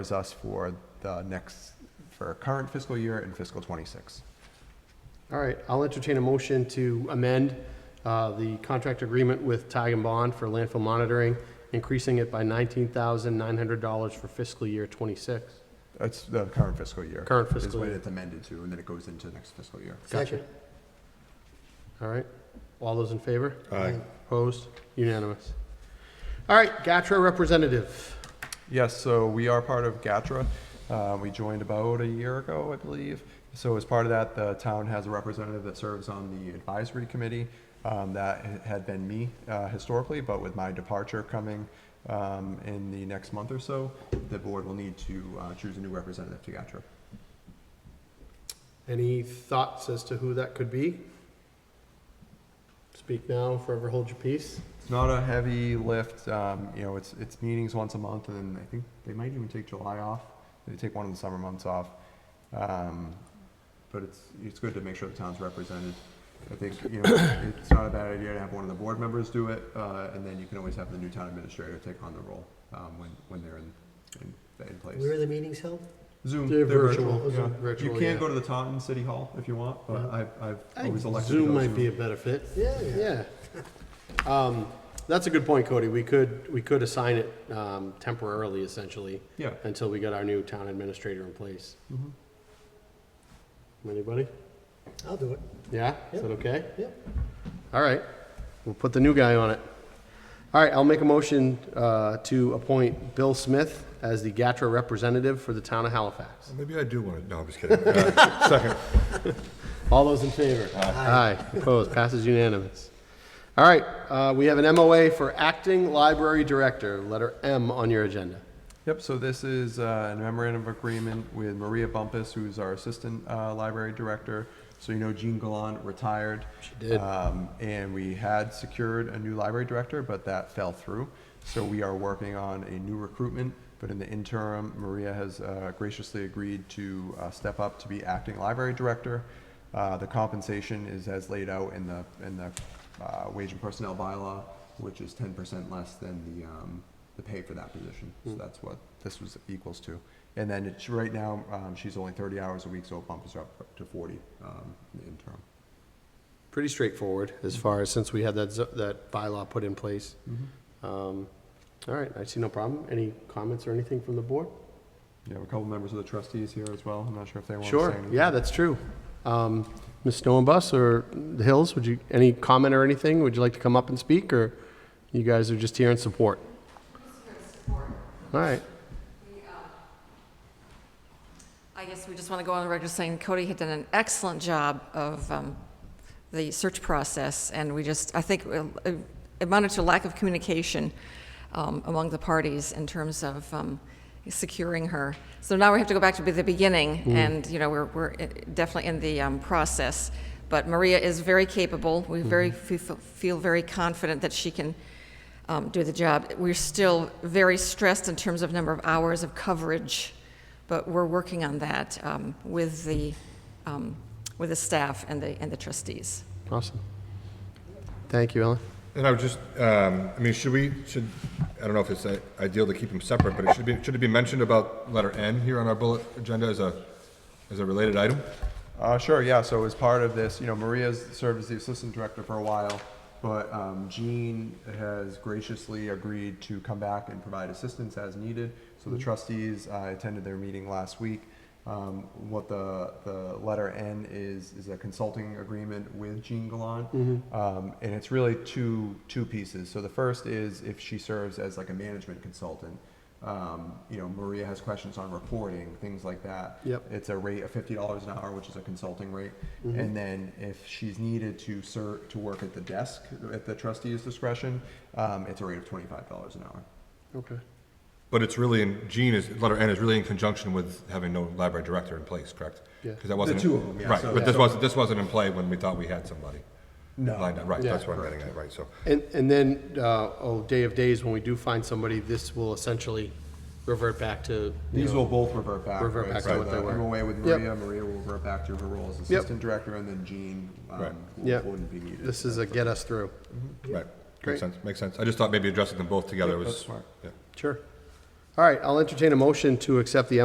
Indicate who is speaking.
Speaker 1: is us for the next, for current fiscal year and fiscal '26.
Speaker 2: All right, I'll entertain a motion to amend uh, the contract agreement with Tag and Bond for landfill monitoring, increasing it by $19,900 for fiscal year '26.
Speaker 1: That's the current fiscal year.
Speaker 2: Current
Speaker 1: Is
Speaker 2: fiscal
Speaker 1: what
Speaker 2: year.
Speaker 1: it's amended to, and then it goes into the next fiscal year.
Speaker 2: Gotcha. All right, all those in favor? Aye. Opposed? Unanimous. All right, GATRA representative.
Speaker 1: Yes, so we are part of GATRA. Uh, We joined about a year ago, I believe. So as part of that, the town has a representative that serves on the advisory committee. Um, That ha- had been me uh, historically, but with my departure coming um, in the next month or so, the board will need to uh, choose a new representative to GATRA.
Speaker 2: Any thoughts as to who that could be? Speak now, forever hold your peace.
Speaker 1: It's not a heavy lift. Um, you know, it's it's meetings once a month, and I think they might even take July off. They take one of the summer months off. Um, but it's it's good to make sure the town's represented. I think you know it's not a bad idea to have one of the board members do it, uh, and then you can always have the new town administrator take on the role um, when when they're in in, in place.
Speaker 3: Where are the meetings held?
Speaker 1: Zoom,
Speaker 2: They're
Speaker 1: they're
Speaker 2: virtual,
Speaker 1: virtual.
Speaker 2: Zoom,
Speaker 1: yeah.
Speaker 2: virtual,
Speaker 1: you can
Speaker 2: yeah.
Speaker 1: go to the Taunton City Hall if you want, but
Speaker 2: Yeah.
Speaker 1: I've I've
Speaker 2: I think
Speaker 1: always elected to
Speaker 2: Zoom
Speaker 1: go
Speaker 2: might
Speaker 1: Zoom.
Speaker 2: be a better fit.
Speaker 3: Yeah,
Speaker 2: Yeah. Um, that's a good point, Cody. We could, we could assign it, um, temporarily essentially
Speaker 1: yeah.
Speaker 2: until we got our new town administrator in place.
Speaker 1: hmm
Speaker 2: Anybody?
Speaker 3: I'll do it.
Speaker 2: Yeah? Is that okay?
Speaker 3: Yep.
Speaker 2: All right. We'll put the new guy on it. All right, I'll make a motion, uh, to appoint Bill Smith as the GATRA representative for the town of Halifax.
Speaker 4: Maybe I do want to, no, I'm just kidding. Uh, Second.
Speaker 2: All those in favor? Aye. Opposed? Passes unanimous. All right, uh, we have an MOA for acting library director, letter M on your agenda.
Speaker 1: Yep, so this is uh, a memorandum of agreement with Maria Bumpus, who's our assistant uh, library director. So you know Jean Gallant retired. She
Speaker 2: did.
Speaker 1: Um, and we had secured a new library director, but that fell through. So we are working on a new recruitment, but in the interim, Maria has uh, graciously agreed to uh, step up to be acting library director. Uh, The compensation is as laid out in the, in the uh, wage and personnel bylaw, which is ten percent less than the, um, the pay for that position. So that's what this was equals to. And then it's, right now, um, she's only thirty hours a week, so it bumps her up to forty um, in the interim.
Speaker 2: Pretty straightforward as far as, since we had that, zo- that bylaw put in place. Um, All right, I see no problem. Any comments or anything from the board?
Speaker 1: You have a couple members of the trustees here as well. I'm not sure if they want to say
Speaker 2: Sure,
Speaker 1: anything.
Speaker 2: yeah, that's true. Um, Ms. Snowbus or the Hills, would you, any comment or anything? Would you like to come up and speak, or you guys are just here in support? All right,
Speaker 5: I guess we just want to go on the record saying Cody had done an excellent job of um, the search process, and we just, I think uh, it amounted to lack of communication um, among the parties in terms of um, securing her. So now we have to go back to the beginning, and, you know, we're we're uh, definitely in the um, process. But Maria is very capable. We very, fe- feel very confident that she can um, do the job. We're still very stressed in terms of number of hours of coverage but we're working on that um, with the, um, with the staff and the, and the trustees.
Speaker 2: awesome. Thank you, Ellen.
Speaker 4: And I would just, um, I mean, should we, should, I don't know if it's uh, ideal to keep them separate, but it should be, should it be mentioned about letter N here on our bullet agenda as a, as a related item?
Speaker 1: Uh, sure, yeah. So as part of this, you know, Maria's served as the assistant director for a while, but um, Jean has graciously agreed to come back and provide assistance as needed. So the trustees uh, attended their meeting last week. Um, what the, the letter N is is a consulting agreement with Jean Gallant, um, and it's really two two pieces. So the first is if she serves as like a management consultant. Um, you know, Maria has questions on reporting, things like that.
Speaker 2: Yep.
Speaker 1: It's a rate of fifty dollars an hour, which is a consulting rate.
Speaker 2: Mm-hmm.
Speaker 1: And then if she's needed to ser, to work at the desk at the trustee's discretion, um, it's a rate of twenty-five dollars an hour.
Speaker 2: Okay.
Speaker 4: But it's really in, Gene is, letter N is really in conjunction with having no library director in place, correct?
Speaker 2: Yeah.
Speaker 4: Because that wasn't.
Speaker 1: two of 'em, yeah,
Speaker 4: Right,
Speaker 1: so-
Speaker 4: but this wasn't, this wasn't in play when we thought we had somebody.
Speaker 1: No.
Speaker 4: lined up. Right,
Speaker 2: Yeah.
Speaker 4: that's what I'm getting at, right, so.
Speaker 2: And, and then, uh, oh, day of days, when we do find somebody, this will essentially revert back to, you
Speaker 1: These
Speaker 2: know,
Speaker 1: will both revert back.
Speaker 2: Revert
Speaker 1: right?
Speaker 2: back to
Speaker 1: So
Speaker 2: what
Speaker 1: the
Speaker 2: they were.
Speaker 1: MOA with
Speaker 2: Yep.
Speaker 1: Maria, Maria will revert back to her role as
Speaker 2: Yep.
Speaker 1: assistant director, and then Jean,
Speaker 4: Right.
Speaker 1: um,
Speaker 2: Yep.
Speaker 1: wouldn't be needed.
Speaker 2: this is a get us through.
Speaker 4: Right,
Speaker 2: Great.
Speaker 4: makes sense, makes sense. I just thought maybe addressing them both together
Speaker 1: That's
Speaker 4: was.
Speaker 1: smart.
Speaker 4: yeah.
Speaker 2: Sure. All right, I'll entertain a motion to accept the